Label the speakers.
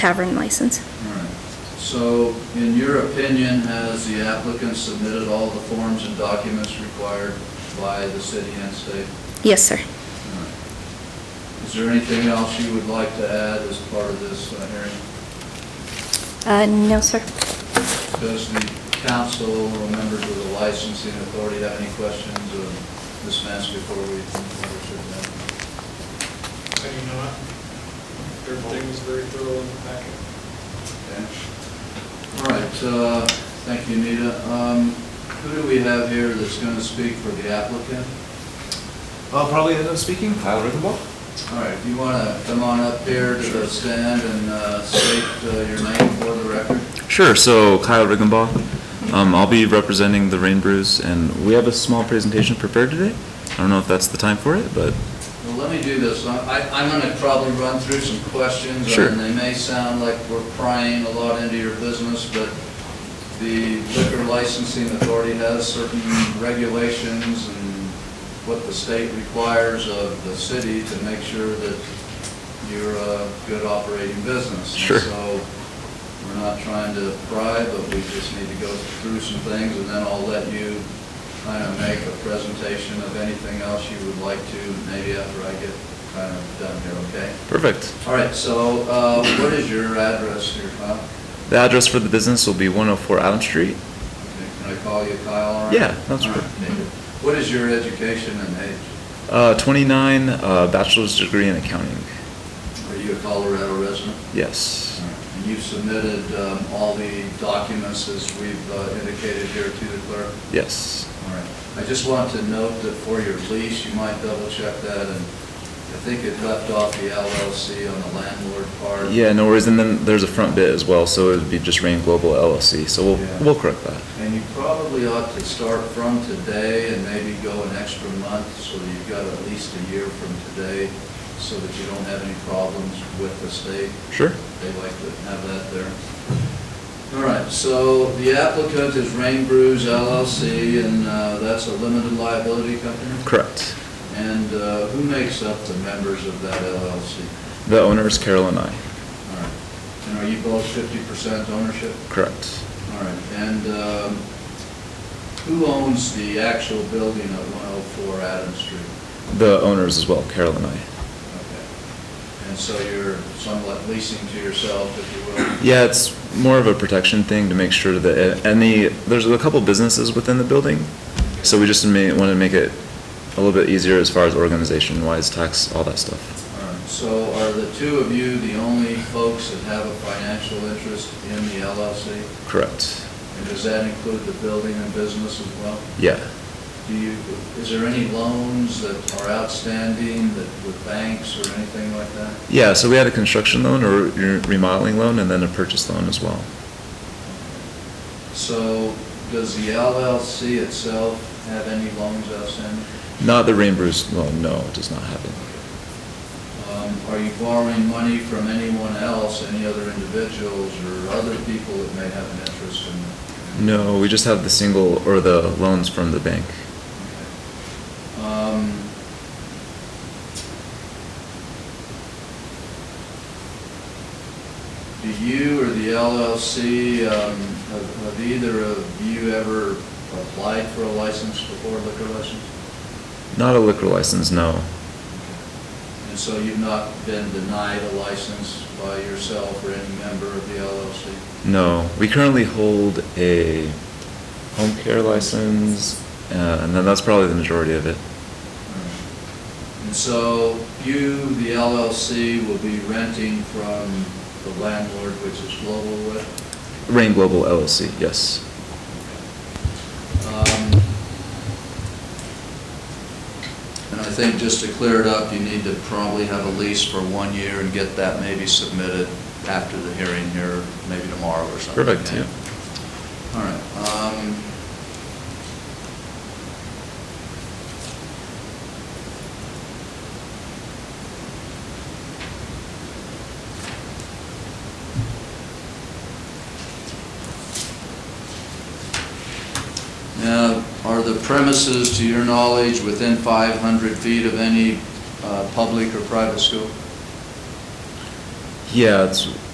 Speaker 1: tavern license.
Speaker 2: All right. So, in your opinion, has the applicant submitted all the forms and documents required by the city and state?
Speaker 1: Yes, sir.
Speaker 2: All right. Is there anything else you would like to add as part of this uh, hearing?
Speaker 1: Uh, no, sir.
Speaker 2: Does the council or members of the licensing authority have any questions of Ms. Mansky before we, before we should, uh,
Speaker 3: I do not. Everything was very thorough in the packet.
Speaker 2: Okay. All right, uh, thank you, Anita. Um, Who do we have here that's going to speak for the applicant?
Speaker 4: I'll Uh, probably end up speaking, Kyle Rickenbaugh.
Speaker 2: All right, if you want to come on up here to the stand and uh, state uh, your name for the record.
Speaker 5: Sure, so Kyle Riggenbaugh. Um, I'll be representing the Rain Brews, and we have a small presentation prepared today. I don't know if that's the time for it, but
Speaker 2: Well, let me do this. I- I- I'm going to probably run through some questions.
Speaker 5: Sure.
Speaker 2: And they may sound like we're prying a lot into your business, but the liquor licensing authority has certain regulations and what the state requires of the city to make sure that you're a good operating business. And
Speaker 5: Sure.
Speaker 2: So we're not trying to pry, but we just need to go through some things, and then I'll let you kind of make a presentation of anything else you would like to, maybe after I get kind of done here, okay?
Speaker 5: perfect.
Speaker 2: All right, so uh, what is your address here, Kyle?
Speaker 5: The address for the business will be 104 Adam Street.
Speaker 2: Okay, Can I call you Kyle? all right?
Speaker 5: Yeah, that's
Speaker 2: All right,
Speaker 5: perfect.
Speaker 2: David. What is your education and age?
Speaker 5: Uh, 29, uh, bachelor's degree in accounting.
Speaker 2: Are you a Colorado resident?
Speaker 5: Yes,
Speaker 2: And you've submitted um, all the documents as we've uh, indicated here to the clerk?
Speaker 5: yes.
Speaker 2: All right. I just want to note that for your lease, you might double check that, and I think it left off the LLC on the landlord part.
Speaker 5: Yeah, no worries. And then there's a front bit as well, so it would be just Rain Global LLC. So
Speaker 2: Yeah.
Speaker 5: we'll, we'll correct that.
Speaker 2: And you probably ought to start from today and maybe go an extra month, so that you've got at least a year from today, so that you don't have any problems with the state.
Speaker 5: Sure.
Speaker 2: They like to have that there. All right, so the applicant is Rain Brews LLC, and uh, that's a limited liability company?
Speaker 5: Correct.
Speaker 2: And uh, who makes up the members of that LLC?
Speaker 5: The owner is Carol and I.
Speaker 2: All right. And are you both 50% ownership?
Speaker 5: Correct.
Speaker 2: All right. And um, who owns the actual building at 104 Adams Street?
Speaker 5: The owners as well, Carol and I.
Speaker 2: Okay. And so you're somewhat leasing to yourself, if you will?
Speaker 5: Yeah, it's more of a protection thing to make sure that any, there's a couple businesses within the building, so we just may, want to make it a little bit easier as far as organization wise, tax, all that stuff.
Speaker 2: All right. So are the two of you the only folks that have a financial interest in the LLC?
Speaker 5: Correct.
Speaker 2: And does that include the building and business as well?
Speaker 5: Yeah.
Speaker 2: Do you, is there any loans that are outstanding that with banks or anything like that?
Speaker 5: Yeah, so we had a construction loan or re- remodeling loan and then a purchase loan as well.
Speaker 2: So does the LLC itself have any loans outstanding?
Speaker 5: Not the Rain Brews loan, no, it does not have it.
Speaker 2: Um, Are you borrowing money from anyone else, any other individuals or other people that may have an interest in it?
Speaker 5: No, we just have the single, or the loans from the bank.
Speaker 2: Okay. Um, Do you or the LLC, um, have have either of you ever applied for a license before liquor license?
Speaker 5: Not a liquor license, no.
Speaker 2: And so you've not been denied a license by yourself or any member of the LLC?
Speaker 5: No, we currently hold a home care license, uh, and then that's probably the majority of it.
Speaker 2: And so you, the LLC, will be renting from the landlord, which is Global Wet?
Speaker 5: Rain Global LLC, yes.
Speaker 2: Um, And I think just to clear it up, you need to probably have a lease for one year and get that maybe submitted after the hearing here, maybe tomorrow or something.
Speaker 5: Perfect, yeah.
Speaker 2: All right. um, Now, are the premises, to your knowledge, within 500 feet of any uh, public or private school?
Speaker 5: Yeah, it's